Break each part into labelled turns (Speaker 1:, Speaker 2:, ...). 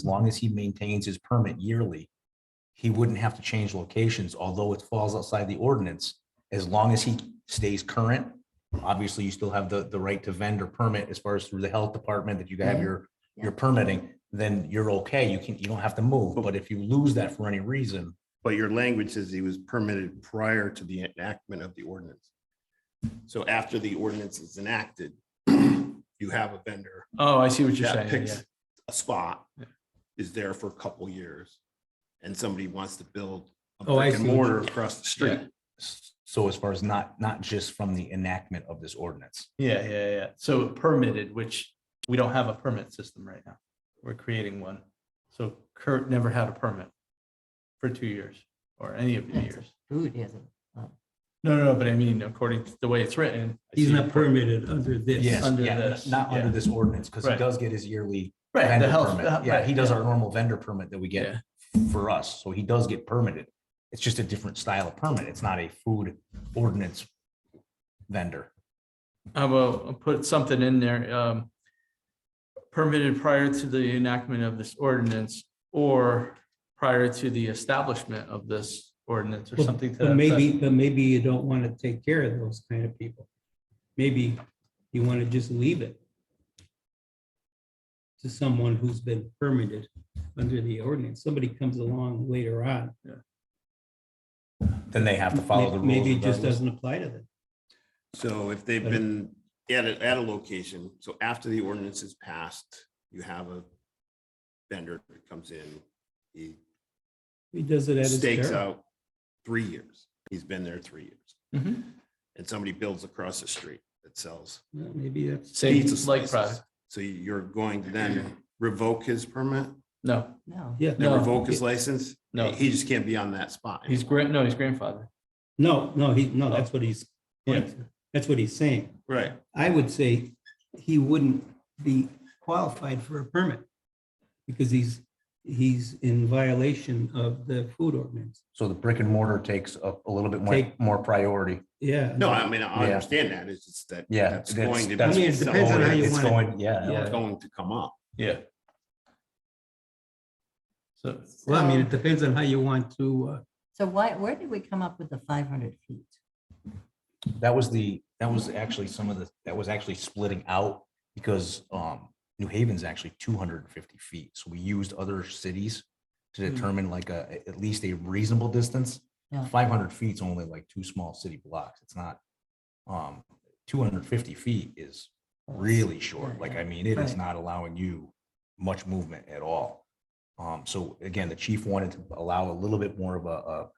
Speaker 1: as long as he maintains his permit yearly, he wouldn't have to change locations, although it falls outside the ordinance. As long as he stays current, obviously you still have the, the right to vendor permit as far as through the health department that you have your, your permitting, then you're okay. You can, you don't have to move. But if you lose that for any reason,
Speaker 2: But your language says he was permitted prior to the enactment of the ordinance. So after the ordinance is enacted, you have a vendor
Speaker 3: Oh, I see what you're
Speaker 2: that
Speaker 3: saying. yeah.
Speaker 2: picks a spot,
Speaker 3: Yeah.
Speaker 2: is there for a couple years, and somebody wants to build a
Speaker 3: Oh, I
Speaker 2: brick and
Speaker 3: see what you-
Speaker 2: mortar across the street.
Speaker 1: s- so as far as not, not just from the enactment of this ordinance.
Speaker 3: Yeah, yeah, yeah. So permitted, which we don't have a permit system right now. We're creating one. So Kurt never had a permit for two years or any of the
Speaker 4: That's
Speaker 3: years.
Speaker 4: Food isn't.
Speaker 3: No, no, no, but I mean, according to the way it's written. I
Speaker 5: He's
Speaker 3: see-
Speaker 5: not permitted under this.
Speaker 1: Yes,
Speaker 3: under
Speaker 1: yeah,
Speaker 3: this,
Speaker 1: not under
Speaker 3: yeah.
Speaker 1: this ordinance, because he
Speaker 3: Right.
Speaker 1: does get his yearly
Speaker 3: Right, the
Speaker 1: vendor
Speaker 3: health.
Speaker 1: permit.
Speaker 3: the-
Speaker 1: Yeah,
Speaker 3: right,
Speaker 1: uh, he does our normal vendor permit that we
Speaker 3: Yeah.
Speaker 1: get for us, so he does get permitted. It's just a different style of permit. It's not a food ordinance vendor.
Speaker 3: I will put something in there. um, Permitted prior to the enactment of this ordinance or prior to the establishment of this ordinance or
Speaker 5: Well,
Speaker 3: something to that.
Speaker 5: But maybe,
Speaker 3: effect.
Speaker 5: but maybe you don't want to take care of those kind of people. Maybe you want to just leave it to someone who's been permitted under the ordinance. Somebody comes along later on.
Speaker 1: Then they have to follow the rules.
Speaker 5: Maybe it just
Speaker 1: regardless.
Speaker 5: doesn't apply to them.
Speaker 2: So if they've
Speaker 5: But-
Speaker 2: been at a, at a location, so after the ordinance is passed, you have a vendor that comes in, he
Speaker 5: He does it at his
Speaker 2: stakes
Speaker 5: peril.
Speaker 2: out three years. He's been there three years.
Speaker 5: Mm-hmm.
Speaker 3: Mhm.
Speaker 2: And somebody builds across the street that sells
Speaker 5: Well, Maybe that's,
Speaker 3: Same
Speaker 2: pizza
Speaker 3: like
Speaker 2: slices.
Speaker 3: product.
Speaker 2: So you're going to then revoke his permit,
Speaker 3: No,
Speaker 4: No.
Speaker 5: yeah.
Speaker 2: then
Speaker 3: No.
Speaker 2: revoke his license?
Speaker 3: No.
Speaker 2: He just can't be on that spot.
Speaker 3: he's grand, no, he's grandfather.
Speaker 5: No, no, he, no, that's what he's,
Speaker 3: Yeah.
Speaker 5: that's what he's saying.
Speaker 2: Right.
Speaker 5: I would say he wouldn't be qualified for a permit because he's, he's in violation of the food ordinance.
Speaker 1: So the brick and mortar takes a, a little bit more,
Speaker 5: Take-
Speaker 1: more priority.
Speaker 5: Yeah.
Speaker 2: No, I mean, I
Speaker 1: Yeah.
Speaker 2: understand that. It's just that.
Speaker 1: Yeah.
Speaker 2: That's
Speaker 1: that's-
Speaker 2: going to.
Speaker 1: that's-
Speaker 5: I mean, it
Speaker 2: it's
Speaker 5: depends on how you
Speaker 1: it's
Speaker 5: want it.
Speaker 1: going- Yeah,
Speaker 3: Yeah.
Speaker 2: Going to come up.
Speaker 3: Yeah. So
Speaker 5: Well, I mean, it depends on how you want to, uh,
Speaker 4: So why, where did we come up with the five hundred feet?
Speaker 1: that was the, that was actually some of the, that was actually splitting out because, um, New Haven's actually two hundred and fifty feet. So we used other cities to
Speaker 3: Hmm.
Speaker 1: determine like a, at least a reasonable distance.
Speaker 4: Yeah.
Speaker 1: Five hundred feet's only like two small city blocks. It's not, um, two hundred and fifty feet is really short. Like, I mean, it is
Speaker 4: Right.
Speaker 1: not allowing you much movement at all. Um, so again, the chief wanted to allow a little bit more of a, a,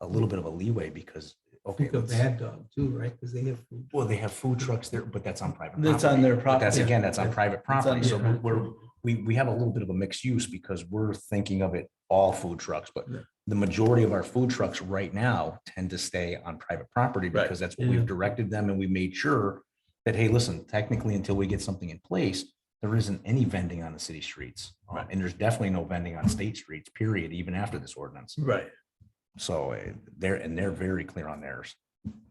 Speaker 1: a little bit of a leeway because, okay,
Speaker 5: think of
Speaker 1: let's-
Speaker 5: Bad Dog too, right? Because they have food.
Speaker 1: well, they have food trucks there, but that's on private.
Speaker 3: that's on their
Speaker 1: But That's
Speaker 3: property.
Speaker 1: again, that's on private
Speaker 3: on
Speaker 1: property. So
Speaker 3: their
Speaker 1: we're, we, we have a little bit of a mixed use because we're thinking of it all food trucks, but
Speaker 3: Yeah.
Speaker 1: the majority of our food trucks right now tend to stay on private property
Speaker 3: Right.
Speaker 1: because that's what
Speaker 5: Yeah.
Speaker 1: we've directed them and we made sure that, hey, listen, technically until we get something in place, there isn't any vending on the city streets. Um, And there's definitely no vending on state streets, period, even after this ordinance.
Speaker 3: Right.
Speaker 1: So eh, they're, and they're very clear on theirs.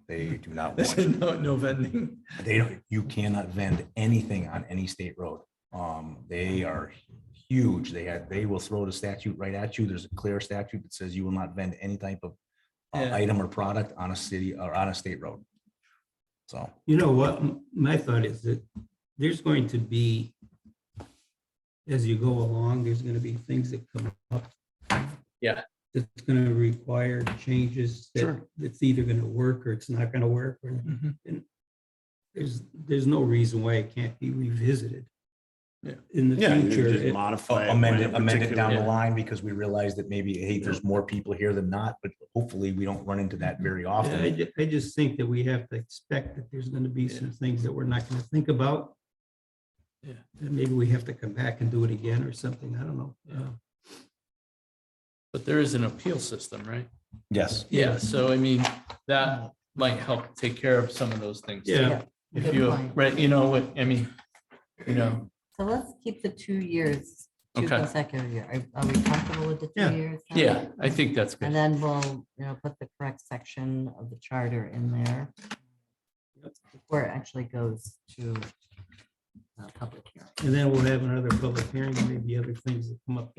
Speaker 1: They do not
Speaker 3: This
Speaker 1: want
Speaker 3: is no, no vending.
Speaker 1: they don't, you cannot vend anything on any state road. Um, they are huge. They had, they will throw the statute right at you. There's a clear statute that says you will not vend any type of uh,
Speaker 3: Yeah.
Speaker 1: item or product on a city or on a state road. So,
Speaker 5: You know what, m- my thought is that there's going to be, as you go along, there's gonna be things that come up.
Speaker 3: Yeah.
Speaker 5: That's gonna require changes that,
Speaker 2: Sure.
Speaker 5: that's either gonna work or it's not gonna work. or There's, there's no reason why it can't be revisited.
Speaker 3: Yeah.
Speaker 5: In the
Speaker 2: Yeah. you
Speaker 5: future.
Speaker 2: just
Speaker 5: It-
Speaker 3: Oh,
Speaker 2: Modify.
Speaker 1: amend it, amend it down the
Speaker 3: Yeah.
Speaker 1: line because we realize that maybe, hey, there's more people here than not, but hopefully we don't run into that very
Speaker 5: Yeah, I,
Speaker 1: often.
Speaker 5: ju- I just think that we have to expect that there's gonna be some things that we're not gonna think about.
Speaker 3: Yeah.
Speaker 5: And maybe we have to come back and do it again or something, I don't know.
Speaker 3: Yeah.
Speaker 5: Uh,
Speaker 3: But there is an appeal system, right?
Speaker 1: Yes.
Speaker 3: Yeah, so I mean, that might help take care of some of those things.
Speaker 5: Yeah,
Speaker 3: If you, right, you know what, I mean, you know,
Speaker 4: So let's keep the two years, two
Speaker 3: Okay.
Speaker 4: consecutive year. Are- Are we comfortable with the
Speaker 5: Yeah.
Speaker 4: two years? then?
Speaker 3: yeah, I think that's
Speaker 4: And
Speaker 3: good.
Speaker 4: then we'll, you know, put the correct section of the charter in there. Before it actually goes to uh, public hearing.
Speaker 5: and then we'll have another public hearing, maybe other things that come up